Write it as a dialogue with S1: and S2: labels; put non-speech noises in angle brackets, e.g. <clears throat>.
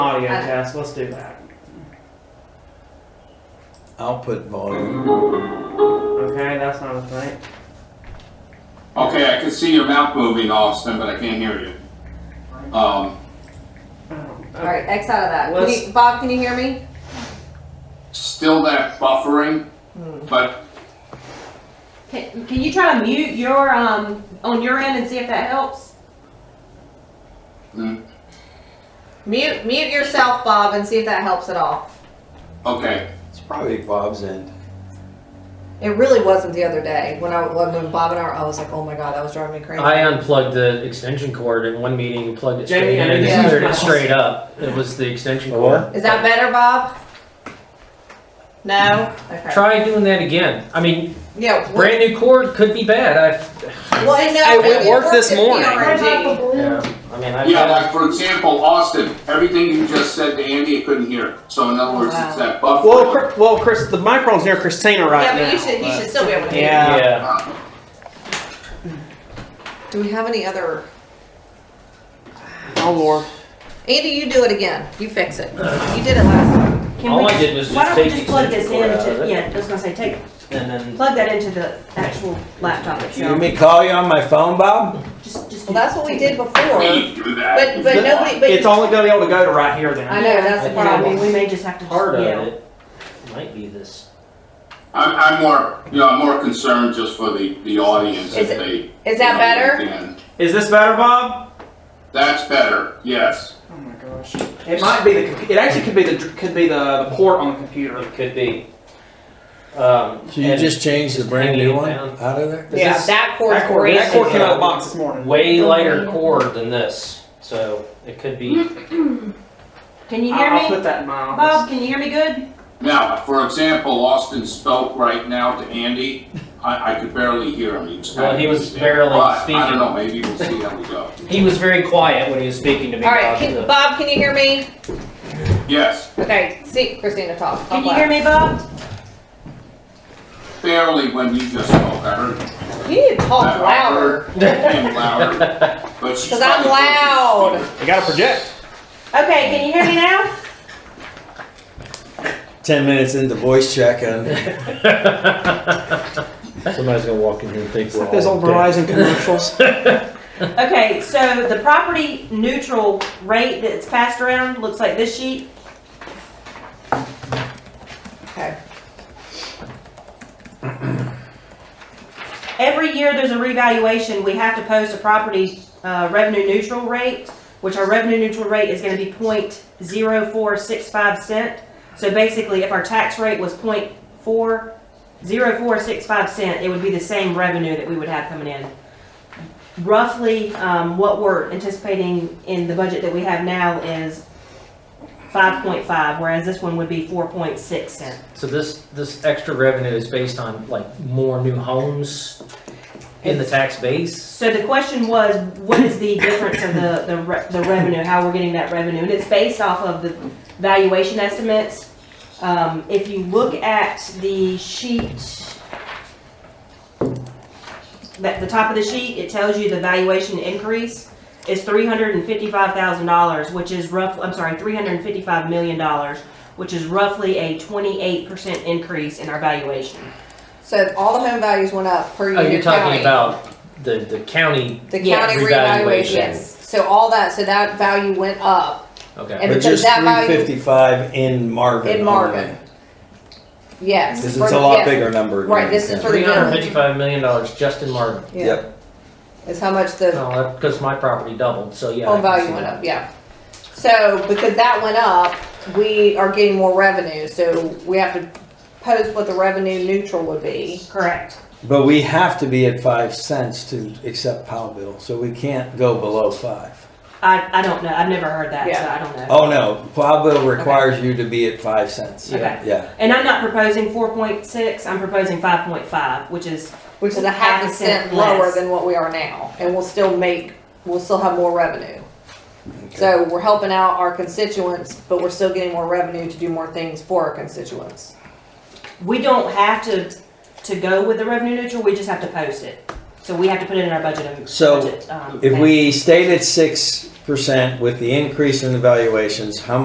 S1: Oh yeah, Tess, let's do that.
S2: output volume.
S1: Okay, that's not a thing.
S3: Okay, I can see your mouth moving, Austin, but I can't hear you. Um,
S1: Oh,
S4: All right, X out of that. Can
S1: Let's-
S4: you, Bob, can you hear me?
S3: still that buffering, but
S5: Can, can you try to mute your, um, on your end and see if that helps?
S3: mm,
S4: Mute, mute yourself, Bob, and see if that helps at all.
S3: okay.
S2: It's probably Bob's end.
S4: It really wasn't the other day when I when Bob and I, were- I was like, oh my god, that was driving me crazy.
S6: I unplugged the extension cord in one meeting and plugged it straight
S1: Jamie, I
S6: in and
S1: need
S4: to
S6: cleared it
S1: use my-
S6: straight up. It was the extension
S2: Oh,
S6: cord.
S4: Is that better, Bob? No. Okay.
S6: Try doing that again. I mean,
S4: yeah. what-
S6: brand new cord could be bad. I've,
S4: Well, I know,
S6: It
S4: but
S6: won't work this
S4: if
S6: morning.
S4: you're RNG.
S6: yeah, I mean, I've
S3: Yeah,
S6: got-
S3: like for example, Austin, everything you just said to Andy, I couldn't hear. So in other words, it's that
S1: Well,
S3: buffering.
S1: Chris, well, Chris, the microphone's near Christina right
S4: Yeah,
S1: now.
S4: but you should you should still be able to.
S1: Yeah.
S6: yeah.
S3: Uh,
S4: Do we have any other?
S1: Oh Lord.
S4: Andy, you do it again. You fix it. You did it last time.
S5: Can
S6: All
S5: we
S6: I did was
S5: Why
S6: just
S5: don't we
S6: take
S5: just
S6: the
S5: plug this
S6: extension cord out
S5: into,
S6: of it.
S5: yeah, I was gonna say, take,
S6: And then
S5: plug that into the actual laptop
S2: You want
S5: itself.
S2: me to call you on my phone, Bob?
S5: Just, just.
S4: Well, that's what we did before.
S3: we do that.
S4: But but nobody. But
S1: it's only gonna be able to go to right here then.
S4: I know that's the
S5: Yeah, I mean,
S4: problem.
S5: we may just have to.
S6: part of
S5: yeah.
S6: it might be this.
S3: I'm, I'm more, you know, I'm more concerned just for the, the audience if
S4: Is it-
S3: they.
S4: Is that better?
S3: you know, can.
S1: Is this better, Bob?
S3: That's better, yes.
S1: Oh my gosh. It might be the. compu- It actually could be the dr- could be the, the port on the computer.
S6: It could be. Um,
S2: So you
S6: and
S2: just changed the brand new
S6: hanging
S2: one
S6: down.
S2: out of there?
S6: Is
S4: Yeah,
S6: this-
S4: that cord's
S1: That cord,
S4: crazy.
S1: that cord came out of the box this morning.
S6: way lighter cord than this, so it could be.
S4: Hmm.
S5: Can you
S1: I'll-
S5: hear
S1: I'll
S5: me?
S1: put that in my office.
S5: Bob, can you hear me good?
S3: Now, for example, Austin spoke right now to Andy. I, I could barely hear him. He was kind
S6: Well,
S3: of
S6: he was
S3: busy.
S6: barely
S3: But I
S6: speaking.
S3: don't know, maybe we'll see how we go.
S6: He was very quiet when he was speaking to me.
S4: All right,
S6: about
S4: can,
S6: the-
S4: Bob, can you hear me?
S3: Yes,
S4: Okay, see Christina talk. talk
S5: Can you
S4: loud.
S5: hear me, Bob?
S3: barely when you just spoke. I heard
S4: You need to talk
S3: I- I heard
S4: Oh, louder. <laughs>
S3: him louder, but she's.
S4: 'Cause I'm
S3: probably closer to
S4: loud.
S3: the speaker.
S1: You gotta project.
S5: Okay, can you hear me now?
S2: Ten minutes into voice check and
S7: Somebody's gonna walk in here and think
S1: It's
S7: we're
S1: like those
S7: all
S1: old
S7: dead.
S1: Verizon commercials.
S5: <laughs> Okay, so the property neutral rate that's passed around looks like this sheet.
S4: Okay.
S5: <clears throat> Every year there's a revaluation, we have to post a property's uh, revenue neutral rate, which our revenue neutral rate is gonna be point zero four six five cent. So basically, if our tax rate was point four, zero four six five cent, it would be the same revenue that we would have coming in. Roughly, um, what we're anticipating in the budget that we have now is five point five, whereas this one would be four point six cent.
S6: So this, this extra revenue is based on like more new homes in the tax base?
S5: So the question was, what is the difference of the, the, re- the revenue, how we're getting that revenue? And it's based off of the valuation estimates. Um, if you look at the sheet, at the top of the sheet, it tells you the valuation increase is three hundred and fifty-five thousand dollars, which is rough, I'm sorry, three hundred and fifty-five million dollars, which is roughly a twenty-eight percent increase in our valuation.
S4: So all the home values went up per
S6: Oh,
S4: unit
S6: you're
S4: county.
S6: talking about the, the county,
S4: the
S5: Yeah,
S4: county
S6: revaluation.
S4: revaluation. So all that, so that value went up.
S6: okay.
S4: And
S2: but
S4: because
S2: just
S4: that
S2: three
S4: value-
S2: fifty-five in Marvin.
S4: In Marvin.
S2: only.
S4: Yes.
S2: This
S4: for
S2: is a
S4: the-
S2: lot
S4: yes,
S2: bigger number.
S4: Right, this is for the
S6: Three hundred and
S4: village.
S6: fifty-five million dollars just in Marvin.
S4: Yeah.
S2: Yep.
S4: Is how much the
S6: No, that, because my property doubled, so yeah. I
S4: home
S6: can see
S4: value went
S6: that.
S4: up, yeah. So because that went up, we are getting more revenue, so we have to post what the revenue neutral would be.
S5: Correct.
S2: But we have to be at five cents to accept Powell bill, so we can't go below five.
S5: I, I don't know, I've never heard that, so
S4: Yeah.
S5: I don't know.
S2: Oh, no, Powell bill requires you to be at five cents.
S5: Okay.
S2: Yeah,
S5: And I'm not proposing four point six, I'm proposing five point five, which is,
S4: Which is a half a cent
S5: less.
S4: lower than what we are now, and we'll still make, we'll still have more revenue. So we're helping out our constituents, but we're still getting more revenue to do more things for our constituents.
S5: we don't have to, to go with the revenue neutral, we just have to post it. So we have to put it in our budget. and-
S2: So,
S5: budget, um,
S2: if
S5: thing.
S2: we stayed at six percent with the increase in the valuations, how